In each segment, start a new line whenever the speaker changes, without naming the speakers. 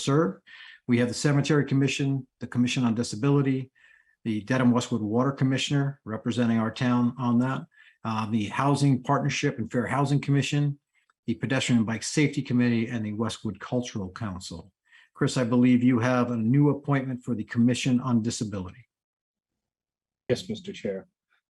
serve. We have the Cemetery Commission, the Commission on Disability, the Dedham Westwood Water Commissioner representing our town on that, uh, the Housing Partnership and Fair Housing Commission, the Pedestrian and Bike Safety Committee, and the Westwood Cultural Council. Chris, I believe you have a new appointment for the Commission on Disability.
Yes, Mr. Chair.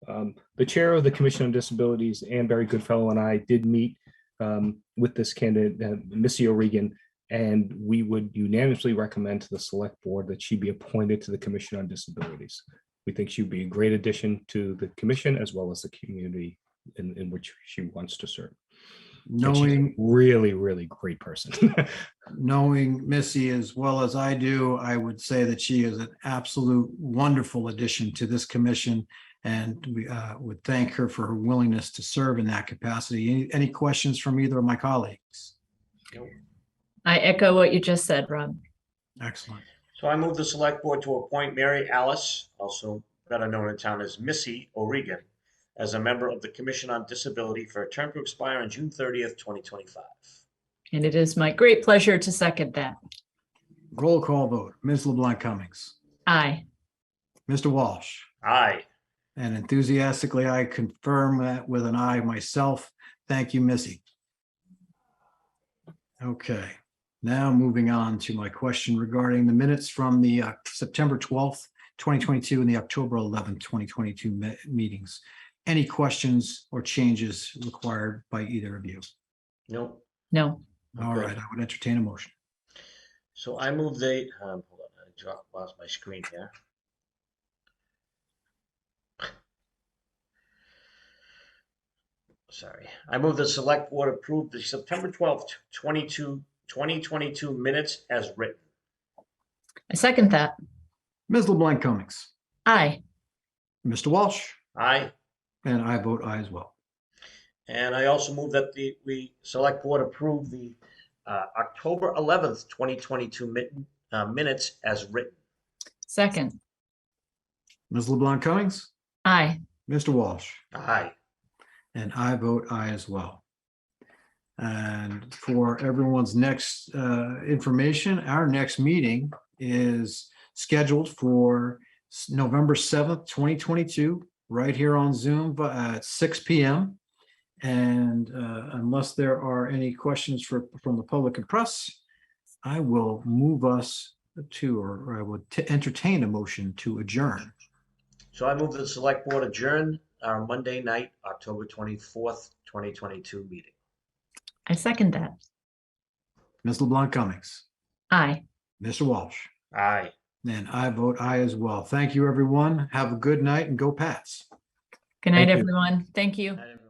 Um, The Chair of the Commission on Disabilities, Ann Barry Goodfellow, and I did meet um, with this candidate, uh, Missy O'Regan, and we would unanimously recommend to the Select Board that she be appointed to the Commission on Disabilities. We think she'd be a great addition to the commission as well as the community in, in which she wants to serve. And she's a
Knowing
Really, really great person.
knowing Missy as well as I do, I would say that she is an absolute wonderful addition to this commission. And we uh, would thank her for her willingness to serve in that capacity. Any, any questions from either of my colleagues?
I echo what you just said, Rob.
Excellent.
So I move the select board to appoint Mary Alice, also better known in town as Missy O'Regan, as a member of the Commission on Disability for a term to expire on June thirtieth, twenty twenty-five.
And it is my great pleasure to second that.
Roll call vote. Ms. LeBlanc Cummings,
Aye.
Mr. Walsh,
Aye.
and enthusiastically, I confirm that with an eye myself. Thank you, Missy. Okay, now moving on to my question regarding the minutes from the uh, September 12th, 2022 and the October 11th, 2022 me- meetings. Any questions or changes required by either of you?
No.
No.
All
Okay.
right, I would entertain a motion.
So I move they, um, hold on, I dropped, lost my screen here. Sorry. I move the select board approve the September twelfth, 22 2022 minutes as written.
I second that.
Ms. LeBlanc Cummings,
Aye.
Mr. Walsh,
Aye.
and I vote aye as well.
And I also move that the, we, select board approve the uh, October 11th, 2022 min- uh, minutes as written.
Second.
Ms. LeBlanc Cummings,
Aye.
Mr. Walsh.
Aye.
And I vote aye as well. And for everyone's next uh, information, our next meeting is scheduled for s- November 7th, 2022, right here on Zoom bu- at 6 PM. And uh, unless there are any questions for, from the public and press, I will move us to, or I would t- entertain a motion to adjourn.
So I move that the select board adjourn our Monday night, October 24th, 2022 meeting.
I second that.
Ms. LeBlanc Cummings,
Aye.
Mr. Walsh.
Aye.
And I vote aye as well. Thank you, everyone. Have a good night and go Pats.
Good night,
Thank you.
everyone. Thank you.
Item